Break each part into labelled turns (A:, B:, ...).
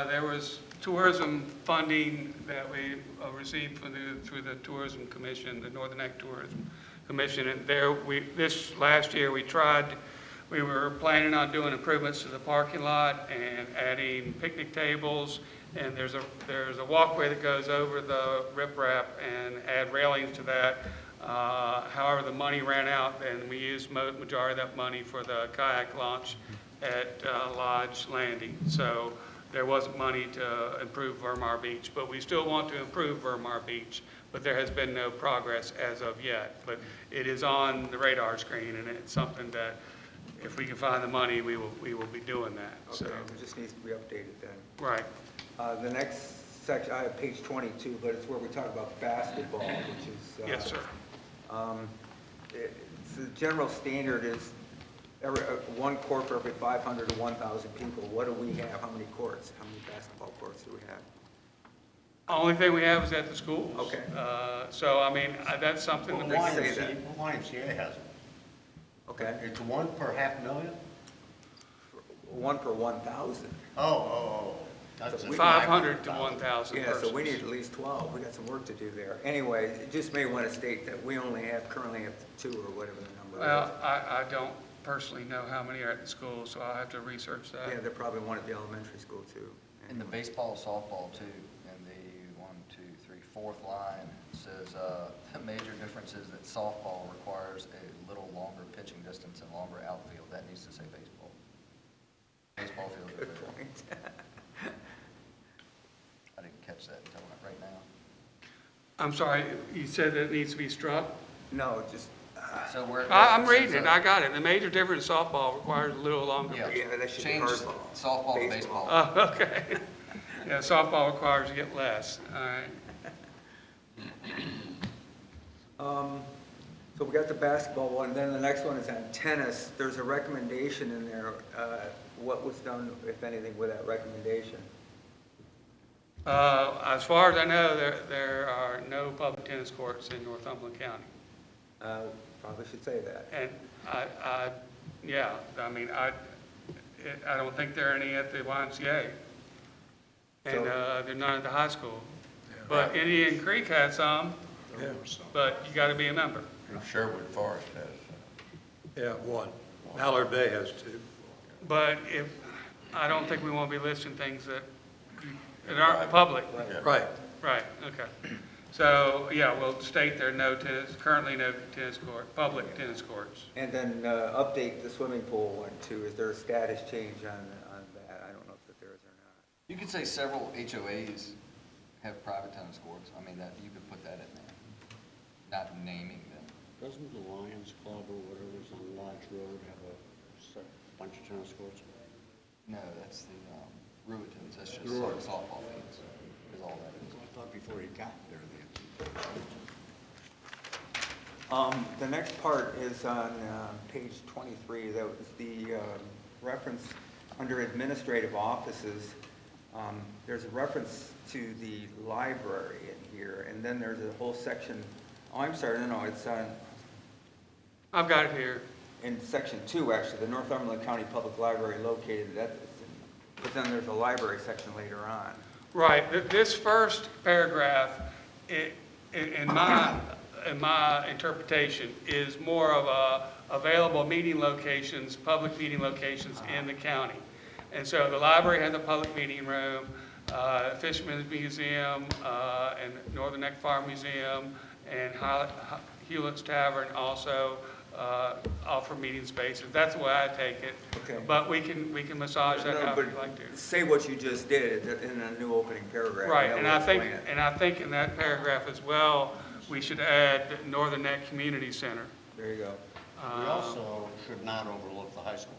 A: Uh, There was tourism funding that we uh, received from the- through the Tourism Commission, the Northern Act Tourism Commission, and there, we, this last year, we tried, we were planning on doing improvements to the parking lot and adding picnic tables, and there's a, there's a walkway that goes over the riprap and add railings to that. Uh, However, the money ran out, and we used mo- majority of that money for the kayak launch at uh, Lodge Landing. So there wasn't money to improve Vermar Beach, but we still want to improve Vermar Beach, but there has been no progress as of yet. But it is on the radar screen, and it's something that if we can find the money, we will, we will be doing that, so,
B: Okay, it just needs to be updated then.
A: right.
B: Uh, The next section, I have page 22, but it's where we talk about basketball, which is. uh,
A: Yes, sir.
B: um, it- it's The general standard is every, uh, one court for every 500 to 1,000 people. What do we have? How many courts? How many basketball courts do we have?
A: Only thing we have is at the schools.
B: Okay.
A: Uh, So, I mean, I- that's something
B: Well,
A: that
B: they
A: we-
B: say
C: YMCA, YMCA has them.
B: Okay,
C: It's one per half million?
B: one per 1,000.
C: Oh, oh, oh. that's a
A: 500 to
C: 500,000.
A: 1,000
B: Yeah,
A: persons.
B: so we need at least 12. We got some work to do there. Anyway, it just may want to state that we only have, currently have two or whatever the number
A: Well,
B: is.
A: I, I don't personally know how many are at the school, so I'll have to research that.
B: Yeah, they're probably one at the elementary school too.
D: In the baseball, softball too, in the one, two, three, fourth line, it says, uh, the major difference is that softball requires a little longer pitching distance and longer outfield. That needs to say baseball. Baseball field.
B: Good point.
D: I didn't catch that until right now.
A: I'm sorry, you said that it needs to be struck?
B: No, just, uh,
D: So we're.
A: I, I'm reading it, I got it. The major difference in softball requires a little longer.
D: Yeah,
B: Yeah, that should be
D: change
B: hardball.
D: softball to
B: Baseball.
D: baseball.
A: Oh, okay. Yeah, softball requires you get less, all right.
B: um, so we got the basketball one, then the next one is on tennis. There's a recommendation in there, uh, what was done, if anything, with that recommendation?
A: Uh, as far as I know, there, there are no public tennis courts in Northumberland County.
B: Uh, Probably should say that.
A: And I, I, yeah, I mean, I, it- I don't think there are any at the YMCA. And,
B: So-
A: uh, there are none at the high school. But Indian Creek had some, but you gotta be a member.
C: And Sherwood Forest has. uh,
E: Yeah, one. Mallard Bay has two.
A: But if, I don't think we wanna be listing things that, that aren't public.
C: yeah.
E: Right.
A: Right, okay. So, yeah, we'll state there are no tennis, currently no tennis court, public tennis courts.
B: And then uh, update the swimming pool one too. Is there a status change on, on that? I don't know if there is or not.
D: You could say several HOAs have private tennis courts. I mean, that, you could put that in there, not naming them.
F: Doesn't the Lions Club or whatever's on Lodge Road have a set- bunch of tennis courts?
D: No, that's the um, Ruitons, that's just
F: Ruitons.
D: softball fields, is all that is.
F: I thought before he got there, they had.
B: Um, The next part is on uh, page 23, that was the um, reference under administrative offices. Um, There's a reference to the library in here, and then there's a whole section, oh, I'm sorry, no, no, it's on,
A: I've got it here.
B: in section two, actually, the Northumberland County Public Library located, that, but then there's a library section later on.
A: Right, th- this first paragraph, i- i- in my, in my interpretation, is more of a available meeting locations, public meeting locations in the county. And so the library has a public meeting room, uh, Fishman's Museum, uh, and Northern Neck Farm Museum, and Hi- Hi- Hewlett's Tavern also uh, offer meeting spaces. That's the way I take
B: Okay.
A: it. But we can, we can massage that
B: No,
A: however you'd
B: but
A: like to.
B: Say what you just did in a new opening paragraph.
A: Right,
B: That
A: and
B: will
A: I think,
B: explain it.
A: and I think in that paragraph as well, we should add Northern Neck Community Center. Um,
B: There you go.
C: We also should not overlook the high school.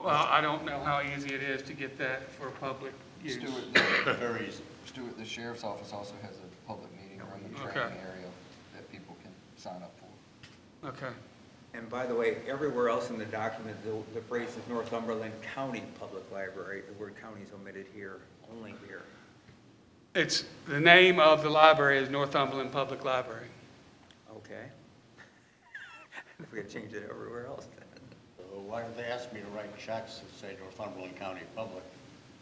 A: Well, I don't know how easy it is to get that for public use.
D: Stewart, the-
C: Very easy.
D: Stewart, the sheriff's office also has a public meeting room and
A: Okay.
D: training area that people can sign up for.
A: Okay,
B: And by the way, everywhere else in the document, the- the phrase is Northumberland County Public Library, the word county is omitted here, only here.
A: it's, the name of the library is Northumberland Public Library.
B: Okay? If we could change it everywhere else then.
C: Uh, So Why did they ask me to write checks that say Northumberland County Public?